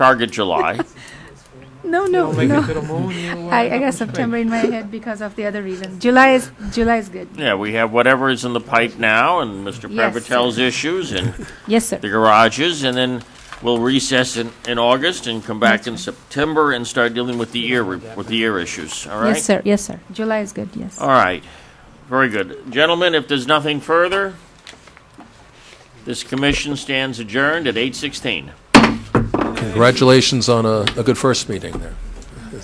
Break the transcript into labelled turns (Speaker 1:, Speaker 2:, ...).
Speaker 1: Target July.
Speaker 2: No, no, no. I, I got September in my head because of the other reason. July is July is good.
Speaker 1: yeah, we have whatever is in the pipe now, and Mr.
Speaker 2: Yes.
Speaker 1: Prevatel's issues, and
Speaker 2: Yes, sir.
Speaker 1: the garages, and then we'll recess in, in August and come back in September and start dealing with the ear re- with the ear issues. All right.
Speaker 2: Yes, sir. Yes, sir. July is good. Yes.
Speaker 1: All right. Very good, gentlemen. If there's nothing further, this commission stands adjourned at eight sixteen.
Speaker 3: Congratulations on a, a good first meeting there.